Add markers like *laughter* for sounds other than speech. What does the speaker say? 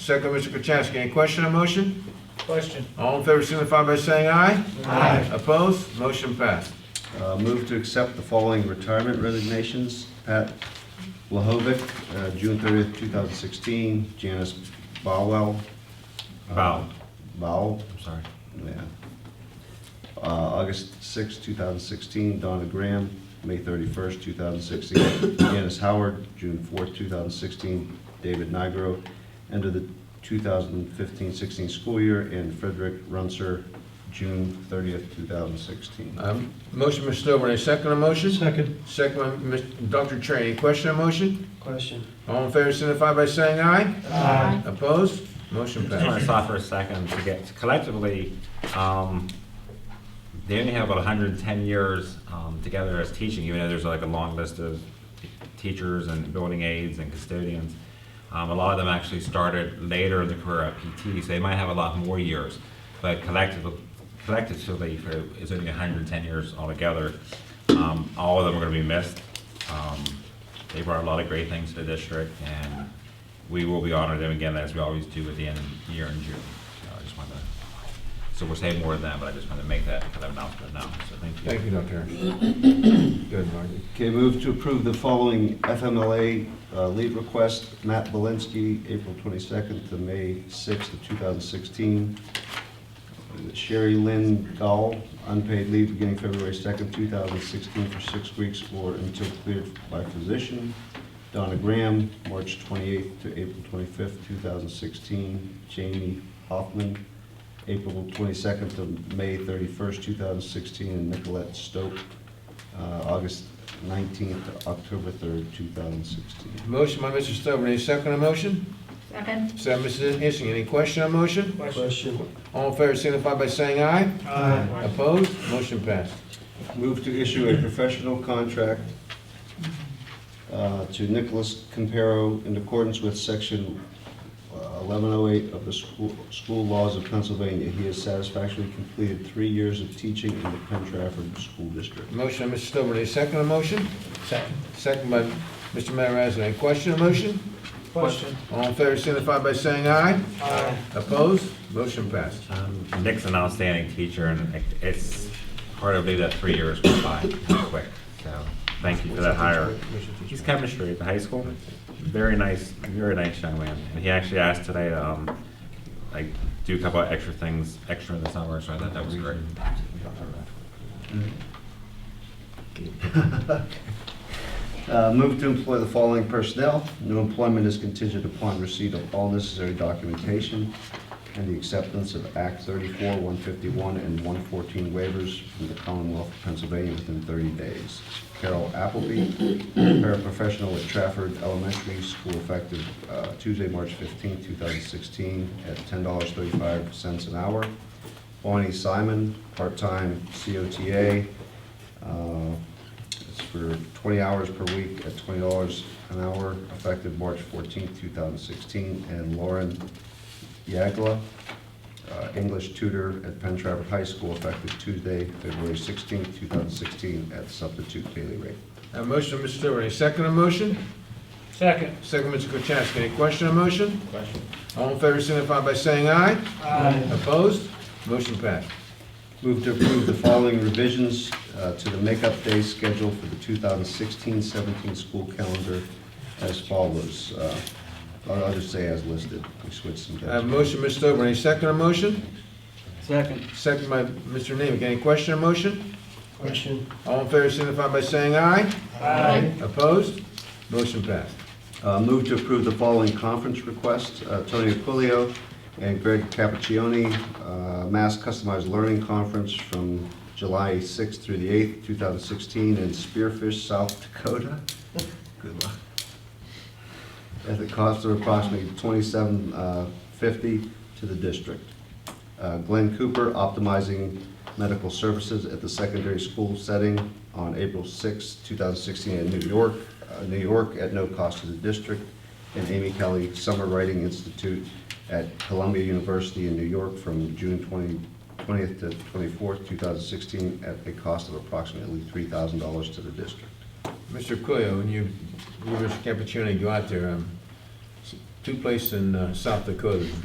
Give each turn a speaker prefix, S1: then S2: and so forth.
S1: Second, Mr. Kachasik, any question on motion?
S2: Question.
S1: All in favor signify by saying aye. Aye. Opposed? Motion passed.
S3: Uh, Move to accept the following retirement resignations. Pat Lahovic, uh, June 30th, 2016. Janice Bowell. uh,
S1: Bow.
S3: Bowell,
S1: I'm sorry.
S3: yeah. Uh, August 6th, 2016. Donna Graham, May 31st, 2016. *coughs* Janice Howard, June 4th, 2016. David Nigro, end of the 2015-16 school year. And Frederick Runser, June 30th, 2016.
S1: Um, Motion, Mr. Stovall, any second on motion?
S2: Second.
S1: Second, by Mr. Dr. Train, any question on motion?
S2: Question.
S1: All in favor signify by saying aye.
S2: Aye.
S1: Opposed? Motion
S4: I just want
S1: passed.
S4: to stop for a second to get, collectively, um, they only have about hundred and ten years, um, together as teaching, even though there's like a long list of teachers and building aides and custodians. Um, a lot of them actually started later in the career at PT, so they might have a lot more years. But collectively, collectively, for- it's only hundred and ten years altogether. Um, all of them are gonna be missed. Um, they brought a lot of great things to the district, and we will be honoring them again, as we always do at the end of the year in June. So I just wanted to, so we'll say more than that, but I just wanted to make that kind of announcement now, so thank you.
S1: Thank you, Dr. Train. Good, Margie.
S3: Okay, move to approve the following FMLA uh, leave request. Matt Belinsky, April 22nd to May 6th of 2016. Sherry Lynn Dahl, unpaid leave beginning February 2nd, 2016 for six weeks or until cleared by physician. Donna Graham, March 28th to April 25th, 2016. Jamie Hoffman, April 22nd to May 31st, 2016. And Nicolette Stoke, uh, August 19th to October 3rd, 2016.
S1: Motion by Mr. Stovall, any second on motion?
S5: Second.
S1: Second, Mrs. Ensing, any question on motion?
S2: Question.
S1: All in favor signify by saying aye.
S2: Aye.
S1: Opposed? Motion passed.
S3: Move to issue a professional contract uh, to Nicholas Campero in accordance with section uh, 1108 of the school school laws of Pennsylvania. He has satisfactorily completed three years of teaching in the Penn Trafford School District.
S1: Motion by Mr. Stovall, any second on motion?
S2: Second.
S1: Second by Mr. Matarazza. Any question on motion?
S2: Question.
S1: All in favor signify by saying aye.
S2: Aye.
S1: Opposed? Motion passed.
S4: Um, Nick's an outstanding teacher, and it- it's hard to believe that three years went by that quick. So, thank you for that hire. He's chemistry at the high school. Very nice, very nice young man. And he actually asked today, um, like, do a couple of extra things, extra in the summer, so I thought that was great.
S3: Uh, Move to employ the following personnel. New employment is contingent upon receipt of all necessary documentation and the acceptance of Act 34, 151, and 114 waivers from the Commonwealth of Pennsylvania within 30 days. Carol Appleby, paraprofessional at Trafford Elementary School, effective uh, Tuesday, March 15, 2016, at $10.35 an hour. Bonnie Simon, part-time COTA, uh, it's for 20 hours per week at $20 an hour, effective March 14, 2016. And Lauren Yagla, uh, English tutor at Penn Trafford High School, effective Tuesday, February 16, 2016, at substitute daily rate.
S1: A motion, Mr. Stewart. Any second on motion?
S2: Second.
S1: Second, Mr. Kachasik. Any question on motion? Question. All in favor signify by saying aye.
S2: Aye.
S1: Opposed? Motion passed.
S3: Move to approve the following revisions uh, to the makeup day schedule for the 2016-17 school calendar as follows. Uh, I'll just say as listed. We switched some.
S1: A motion, Mr. Stewart. Any second on motion?
S2: Second.
S1: Second by Mr. Nemick. Any question on motion?
S2: Question.
S1: All in favor signify by saying aye.
S2: Aye.
S1: Opposed? Motion passed.
S3: Uh, Move to approve the following conference requests, uh, Tony Aquilio and Greg Cappuccioni, uh, Mass Customized Learning Conference from July 6th through the 8th, 2016, in Spearfish, South Dakota. Good luck. At the cost of approximately $27.50 to the district. Uh, Glenn Cooper, Optimizing Medical Services at the Secondary School Setting on April 6, 2016 in New York, uh, New York at no cost to the district. And Amy Kelly, Summer Writing Institute at Columbia University in New York from June 20 20th to 24th, 2016 at a cost of approximately $3,000 to the district.
S1: Mr. Coelho, when you, you, Mr. Campuchioni, go out there, um, two places in uh, South Dakota